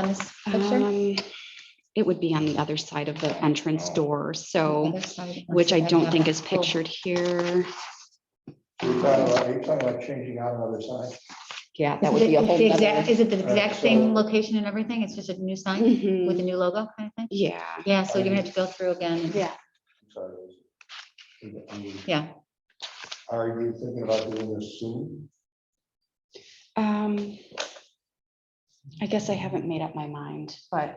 on this picture? Um, It would be on the other side of the entrance door, so, Other side, once which I you have don't the- think is oh, pictured here. You're talking about, you're talking about changing out another sign. Yeah, that is would it- be a it's whole. the nother- exact- Is it the exact so- same location and everything? It's just a new sign Mhm, with a new logo kind of thing? Yeah, Yeah, so you're gonna have to go through again. and- yeah. I'm sorry, it was- I mean, Yeah. Are you thinking about doing this soon? Um, I guess I haven't made up my mind, but,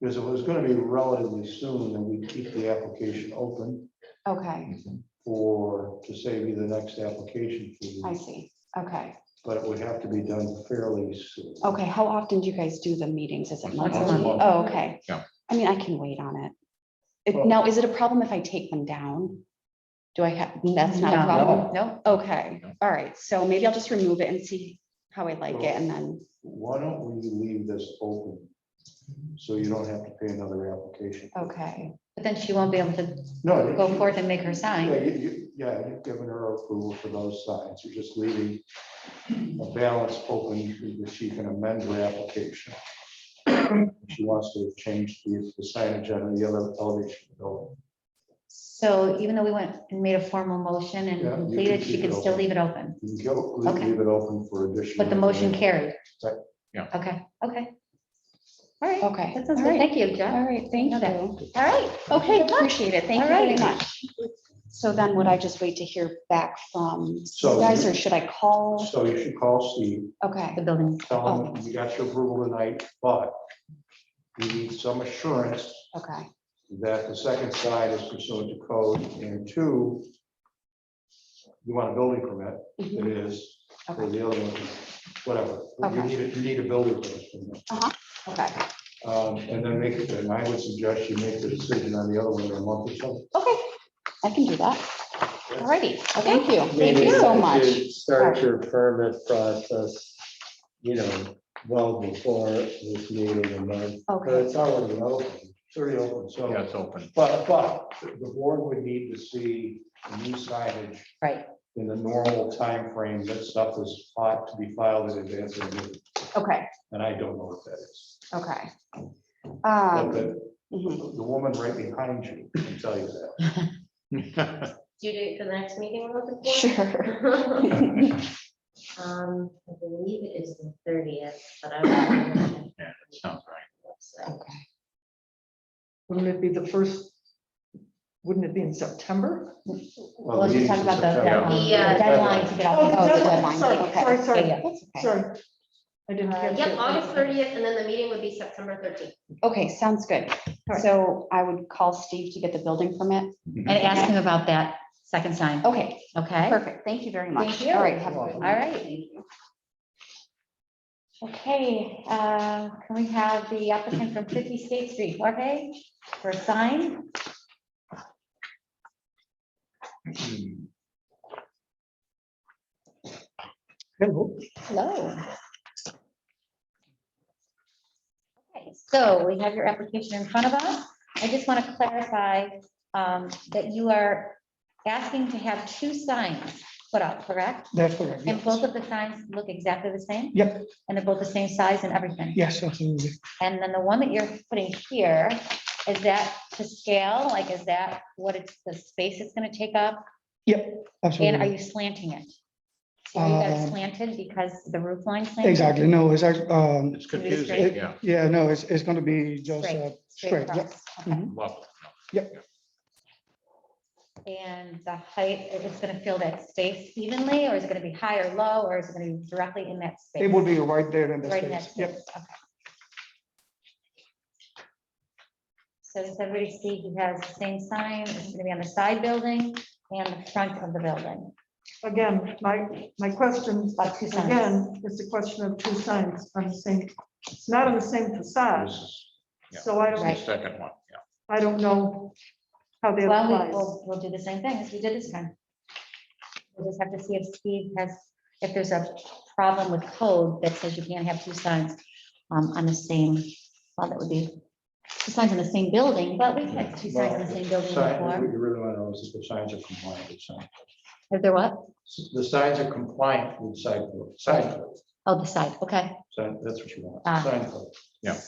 Because if it was gonna be relatively soon, then we keep the application open okay, for, to save you the next application fee. I see. Okay, But it would have to be done fairly soon. okay. How often do you guys do the meetings? Is it Once a monthly? month. Oh, okay. Yeah. I mean, I can wait on it. Well- it. Now, is it a problem if I take them down? Do I have, that's not a No. problem? No, Okay, No. all right, so maybe I'll just remove it and see how I like it and then, Why don't we leave this open? So you don't have to pay another application. okay, but then she won't be able to No. go forth and make her Yeah, sign. you, you, yeah, you've given her approval for those signs. You're just leaving a balance open that she can amend her application. She wants to change the the signage on the other elevation. building. So even though we went and made a formal motion and Yeah, you can completed, she keep it could still open. leave it open. You can go, Okay. leave it open for additional. But the motion information. carried. Right. Yeah. Okay, okay. All right. okay. That sounds all good. right, Thank you, All Jeff. right, thank Okay. you. All right. Okay, appreciate it, thank you very Alrighty. much. So then would I just wait to hear back from So you guys you- or should I call? So you should call Steve, Okay, The building. tell Oh. him you got your approval tonight, but you need some assurance okay, that the second side is pursuant to code, and two, you want a building permit, mhm, it is, or Okay. the other one, whatever. You Okay. need, a- you need a building permit. from them. okay, Um, And then make, it. and I would suggest you make the decision on the other one in a month or so. okay, I can do that, all righty, thank you, thank Maybe you so much. should Start your permit process, you know, well before this meeting a month. But Okay, it's already open, it's already open, so, Yeah, it's open. but, but the board would need to see the new signage Right. in the normal time frame. that stuff is ought to be filed in advance of the meeting, okay, and I don't know what that is. okay. But Um, the, mhm, the woman right behind you can tell you that. due date for the next meeting we're looking for? Sure. Um, I believe it is the thirtieth, but I. don't Yeah, Sounds right. know. Wouldn't it be the first, wouldn't it be in September? Well, Let's just meeting's talk in about Um, the September. deadline. Yeah. Deadline to get Oh, off. the Oh, the deadline, deadline, sorry, okay. sorry, sorry. Yeah, yeah, that's okay. Sorry. I didn't Uh, catch it. Yep, August thirtieth, and then the meeting would be September thirteenth. Okay, sounds good. right. So I would call Steve to get the building permit. And ask him about that second sign, Okay, okay? perfect. Thank you very much. Thank you. All right, have a All good one. right. Okay, uh, can we have the applicant from 50 State Street, Jorge, for a sign? Hello. Okay, so we have your application in front of us. I just want to clarify um, that you are asking to have two signs put up, correct? That's correct. And yes. both of the signs look exactly the same? Yep. And they're both the same size and everything? Yes, absolutely. And then the one that you're putting here, is that to scale? Like, is that what it's, the space it's gonna take up? And are Absolutely. you slanting it? So you got it Mm-hmm. Um, slanted because the roof line slanted? Exactly. No, it's, act- um, It's Can we confusing, straight- yeah. yeah, no, it's, it's going to be just Straight, uh, Straight straight. yep. Mm-hmm. across, okay. Level. And the height, it's gonna fill that space evenly, or is it gonna be high or low, or is it gonna be directly in that space? It will be right there in the Right in that space. Yep. space, okay. So does everybody see he has the same sign, it's gonna be on the side building and the front of the building, Again, my, my question, about two signs. again, is the question of two signs on the same, it's not on the same facade, This is- yeah, so I this is don't, The second one, yeah. I don't know how they Well, we- apply. we'll, we'll do the same thing as we did this time. We'll just have to see if Steve has, if there's a problem with code that says you can't have two signs um, on the same, well, that would be two signs on the same building, but we've had two signs on the same building Sign- What before. you really want to know is if the signs are compliant with sign. If they're what? The signs are compliant with site, code- sign code. Oh, the side, okay. So that's what you want. Ah. Sign code.